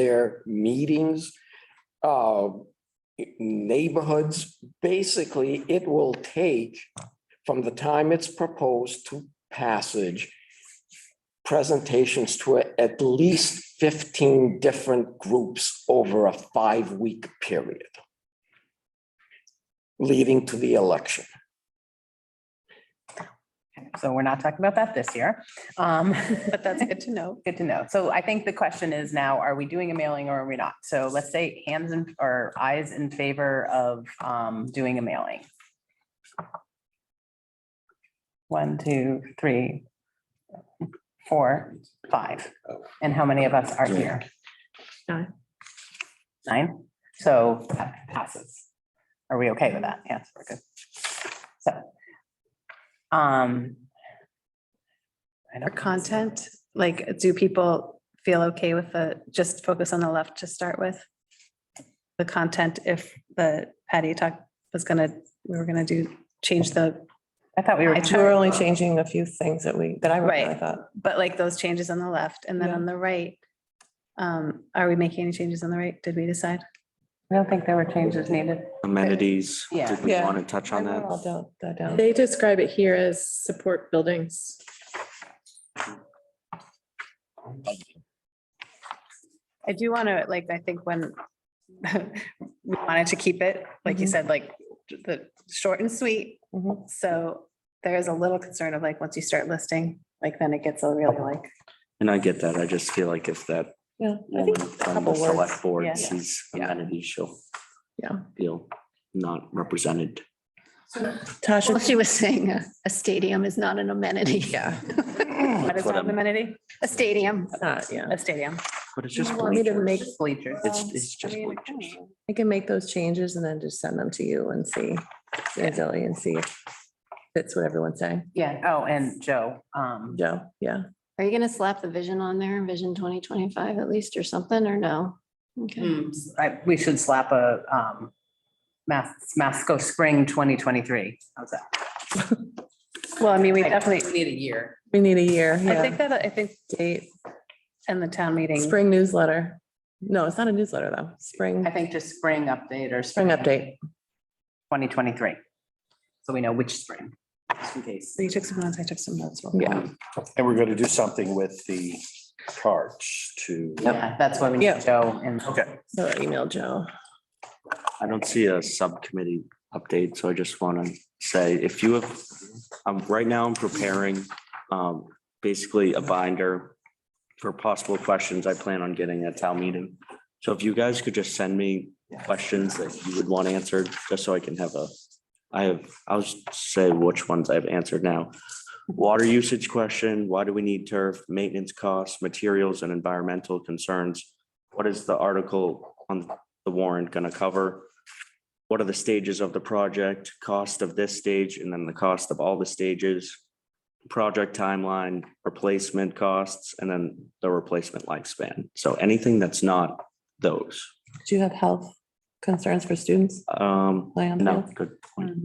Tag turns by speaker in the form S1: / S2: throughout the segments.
S1: their meetings, uh, neighborhoods. Basically, it will take from the time it's proposed to passage, presentations to at least fifteen different groups over a five-week period leading to the election.
S2: So we're not talking about that this year. Um,
S3: But that's good to know.
S2: Good to know. So I think the question is now, are we doing a mailing or are we not? So let's say hands in or eyes in favor of um, doing a mailing. One, two, three, four, five. And how many of us are here?
S3: Nine.
S2: Nine? So that passes. Are we okay with that? Yes, we're good. So. um, I
S3: Or
S2: don't-
S3: content, like, do people feel okay with the, just focus on the left to start with? The content, if the Patty talk was gonna, we were gonna do, change the,
S2: I thought we were.
S3: I
S4: So we're only changing a few things that we, that I wrote, I
S3: Right.
S4: thought.
S3: but like those changes on the left and then
S4: Yeah.
S3: on the right. Um, are we making any changes on the right? Did we decide?
S2: I don't think there were changes needed.
S5: amenities.
S2: Yeah.
S5: Did we
S4: Yeah.
S5: want to touch
S4: I
S5: on
S4: wrote all
S5: that?
S4: down- that down.
S6: They describe it here as support buildings.
S3: I do want to, like, I think when we wanted to keep it, like you
S4: Mhm.
S3: said, like, the short and sweet,
S4: Mhm.
S3: So there is a little concern of like, once you start listing, like then it gets a really like,
S5: And I get that. I just feel like if that
S4: Yeah, I
S5: woman
S4: think a
S5: from the
S4: couple words.
S5: select board
S3: Yeah.
S5: sees
S4: Yeah.
S5: amenities, she'll
S6: Yeah.
S5: feel not represented.
S4: Tasha,
S7: Well, she was saying a, a stadium is not an amenity.
S4: yeah,
S3: what is
S5: That's What
S3: that an
S5: I'm-
S3: amenity?
S7: A stadium.
S4: not, yeah.
S3: A stadium.
S5: but it's just.
S6: You want me to
S5: bleachers.
S6: make-
S2: Bleachers.
S5: It's, it's just bleachers.
S4: I can make those changes and then just send them to you and see, and Zoe, and see if that's what everyone's saying.
S2: Yeah. Oh, and Joe, um,
S4: Joe, yeah.
S7: Are you gonna slap the vision on there, vision twenty twenty-five at least or something, or no?
S3: Hmm.
S7: Okay.
S2: I, we should slap a, um, Mas- Masco Spring twenty twenty-three. How's that?
S3: Well, I mean, we
S2: We definitely
S3: definitely,
S2: need a year.
S4: We need a year,
S3: I think
S4: yeah.
S3: that, I think
S4: Date,
S3: in the town meeting,
S4: spring newsletter. No, it's not a newsletter though. Spring,
S2: I think just spring update or.
S4: spring update.
S2: Twenty twenty-three. So we know which spring, just in case.
S3: you took some notes, I took some notes.
S4: Yeah,
S8: And we're going to do something with the charts to.
S2: Yeah, that's why we
S4: Yeah.
S2: need Joe and.
S8: Okay.
S4: so email Joe.
S5: I don't see a subcommittee update, so I just want to say, if you have, um, right now I'm preparing, um, basically a binder for possible questions I plan on getting at town meeting. So if you guys could just send me questions that you would want answered, just so I can have a, I have, I'll just say which ones I've answered now. Water usage question, why do we need turf, maintenance costs, materials and environmental concerns? What is the article on the warrant gonna cover? What are the stages of the project, cost of this stage, and then the cost of all the stages? Project timeline, replacement costs, and then the replacement lifespan. So anything that's not those.
S4: Do you have health concerns for students?
S5: Um,
S4: Plan,
S5: no,
S4: yeah.
S5: good point.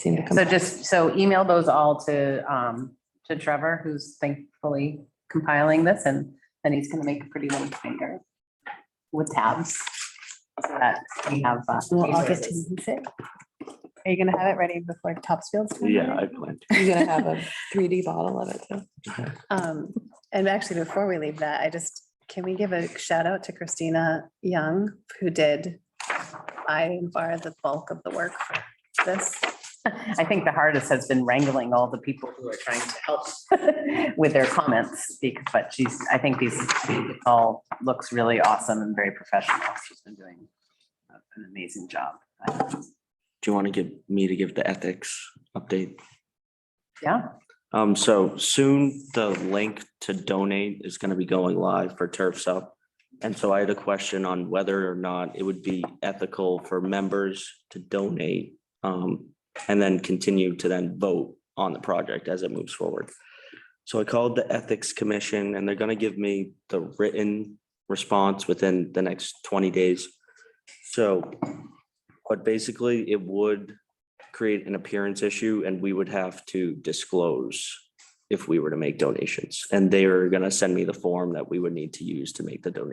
S4: Seem to come.
S2: So just, so email those all to, um, to Trevor, who's thankfully compiling this and then he's gonna make a pretty little binder with tabs. So that we have. uh, resources.
S3: Are you gonna have it ready before Topsfield's? town
S5: Yeah,
S3: meeting?
S5: I planned.
S4: You're gonna have a three D bottle of it too.
S3: Um, and actually, before we leave that, I just, can we give a shout out to Christina Young, who did by far the bulk of the work for this?
S2: I think the hardest has been wrangling all the people who are trying to help with their comments, because, but she's, I think these, it all looks really awesome and very professional. She's been doing an amazing job.
S5: Do you want to give me to give the ethics update?
S2: Yeah.
S5: Um, so soon the link to donate is gonna be going live for Turfs Up. And so I had a question on whether or not it would be ethical for members to donate um, and then continue to then vote on the project as it moves forward. So I called the Ethics Commission and they're gonna give me the written response within the next twenty days. So, but basically it would create an appearance issue and we would have to disclose if we were to make donations. And they are gonna send me the form that we would need to use to make the donation.